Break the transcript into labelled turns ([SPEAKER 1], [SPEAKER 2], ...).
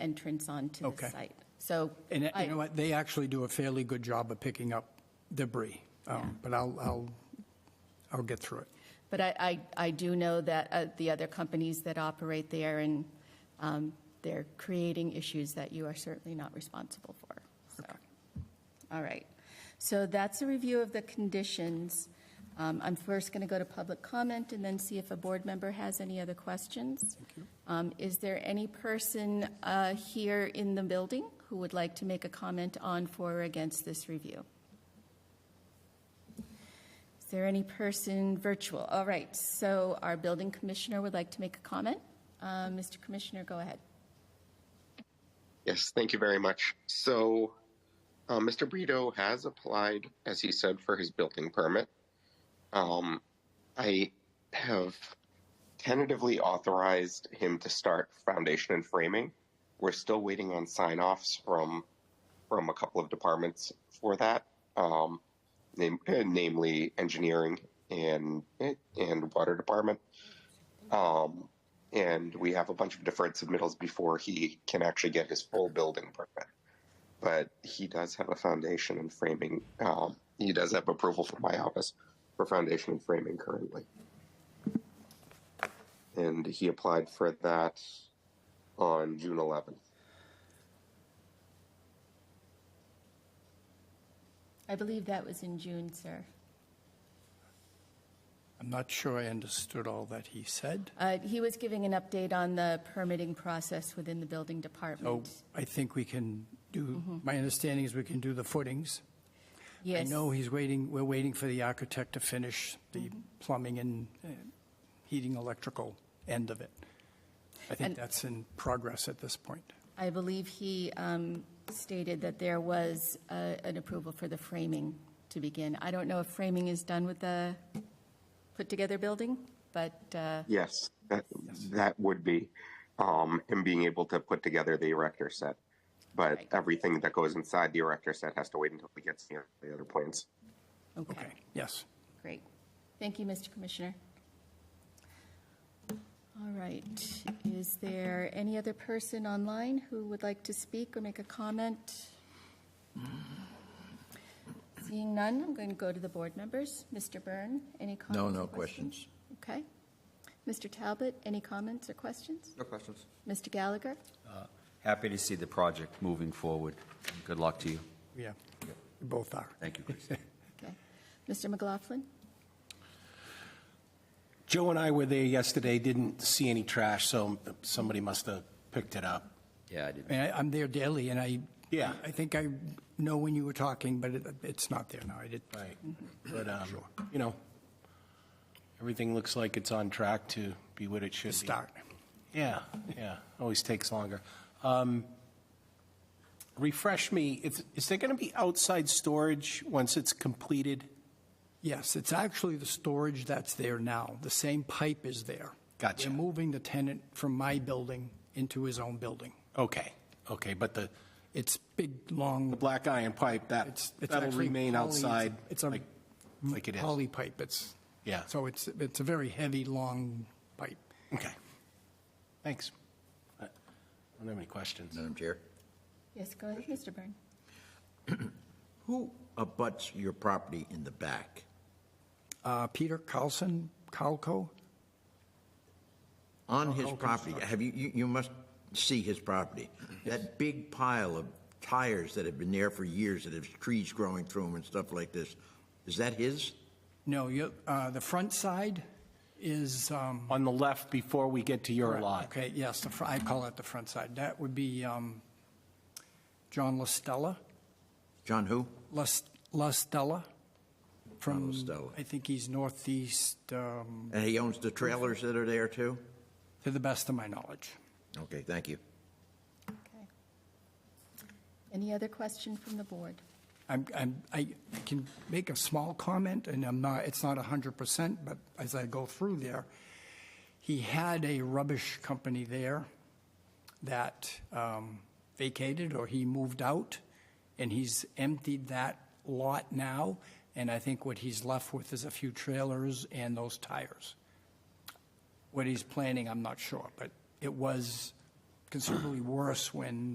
[SPEAKER 1] entrance onto the
[SPEAKER 2] Okay.
[SPEAKER 1] site. So,
[SPEAKER 2] And uh,
[SPEAKER 1] I-
[SPEAKER 2] you know what, they actually do a fairly good job of picking up debris, Um, but I'll, I'll, I'll get through it.
[SPEAKER 1] but I, I, I do know that uh, the other companies that operate there and um, they're creating issues that you are certainly not responsible for. So, all right. So that's a review of the conditions. Um, I'm first going to go to public comment and then see if a board member has any other questions. Um, Is there any person uh, here in the building who would like to make a comment on for or against this review? Is there any person virtual? All right, so our building commissioner would like to make a comment. Uh, Mr. Commissioner, go ahead.
[SPEAKER 3] Yes, thank you very much. So, uh, Mr. Brito has applied, as he said, for his building permit. Um, I have tentatively authorized him to start foundation and framing. We're still waiting on sign offs from from a couple of departments for that, um, nam- eh, namely engineering and eh, and water department. Um, and we have a bunch of deferred submittals before he can actually get his full building permit. But he does have a foundation and framing. Um, he does have approval from my office for foundation and framing currently. And he applied for that on June 11th.
[SPEAKER 1] I believe that was in June, sir.
[SPEAKER 2] I'm not sure I understood all that he said.
[SPEAKER 1] Uh, He was giving an update on the permitting process within the building
[SPEAKER 2] So
[SPEAKER 1] department.
[SPEAKER 2] I think we can do, my understanding is we can do the footings. I
[SPEAKER 1] Mm-hmm. Yes.
[SPEAKER 2] know he's waiting, we're waiting for the architect to finish the
[SPEAKER 1] Mm-hmm.
[SPEAKER 2] plumbing and uh, heating, electrical end of it. I think
[SPEAKER 1] And-
[SPEAKER 2] that's in progress at this point.
[SPEAKER 1] I believe he um, stated that there was uh, an approval for the framing to begin. I don't know if framing is done with the put-together building, but uh,
[SPEAKER 3] Yes, that, that would be um, him being able to put together the erector set. But
[SPEAKER 1] Right.
[SPEAKER 3] everything that goes inside the erector set has to wait until he gets the, the other plans.
[SPEAKER 1] okay,
[SPEAKER 2] Okay, yes.
[SPEAKER 1] great. Thank you, Mr. Commissioner. All right, is there any other person online who would like to speak or make a comment? Seeing none, I'm going to go to the board members. Mr. Byrne, any comments?
[SPEAKER 4] No,
[SPEAKER 1] or
[SPEAKER 4] no questions.
[SPEAKER 1] Okay. Mr. Talbot, any comments or questions?
[SPEAKER 5] No questions.
[SPEAKER 1] Mr. Gallagher?
[SPEAKER 5] Happy to see the project moving forward. Good luck to you.
[SPEAKER 2] Yeah, we both are.
[SPEAKER 5] Thank you, Chris.
[SPEAKER 1] Okay. Mr. McLaughlin?
[SPEAKER 6] Joe and I were there yesterday, didn't see any trash, so somebody must have picked it up.
[SPEAKER 5] Yeah, I did.
[SPEAKER 2] I mean, I- I'm there daily, and I,
[SPEAKER 6] Yeah.
[SPEAKER 2] I think I know when you were talking, but it- it's not there now. I did,
[SPEAKER 6] Right. But, um, you know, everything looks like it's on track to be what it should be.
[SPEAKER 2] start.
[SPEAKER 6] Yeah, yeah, always takes longer. Um, Refresh me, is is there going to be outside storage once it's completed?
[SPEAKER 2] Yes, it's actually the storage that's there now. The same pipe is there.
[SPEAKER 6] Gotcha.
[SPEAKER 2] We're moving the tenant from my building into his own building.
[SPEAKER 6] Okay, okay, but the
[SPEAKER 2] It's big, long,
[SPEAKER 6] the black iron pipe, that,
[SPEAKER 2] it's, it's
[SPEAKER 6] that'll
[SPEAKER 2] actually
[SPEAKER 6] remain
[SPEAKER 2] poly- it's a-
[SPEAKER 6] outside?
[SPEAKER 2] It's a
[SPEAKER 6] like- like it is.
[SPEAKER 2] poly pipe. It's,
[SPEAKER 6] Yeah.
[SPEAKER 2] so it's, it's a very heavy, long pipe.
[SPEAKER 6] Okay. Thanks. I don't have any questions.
[SPEAKER 4] Madam Chair,
[SPEAKER 1] Yes, go ahead, Mr. Byrne.
[SPEAKER 4] who abuts your property in the back?
[SPEAKER 2] Uh, Peter Carlson, Calco?
[SPEAKER 4] On his property, have you, you, you must see his property. That big pile of tires that have been there for years, that have trees growing through them and stuff like this, is that his?
[SPEAKER 2] No, you, uh, the front side is, um,
[SPEAKER 6] On the left, before we get to your lot.
[SPEAKER 2] Okay, yes, the, fr- I call it the front side. That would be um, John LaStella,
[SPEAKER 4] John who?
[SPEAKER 2] Las- LaStella from,
[SPEAKER 4] LaStella.
[SPEAKER 2] I think he's northeast, um,
[SPEAKER 4] And he owns the trailers that are there too?
[SPEAKER 2] to the best of my knowledge.
[SPEAKER 4] Okay, thank you.
[SPEAKER 1] Okay. Any other question from the board?
[SPEAKER 2] I'm, I'm, I I can make a small comment, and I'm not, it's not 100%, but as I go through there, he had a rubbish company there that um, vacated, or he moved out, and he's emptied that lot now, and I think what he's left with is a few trailers and those tires. What he's planning, I'm not sure, but it was considerably worse when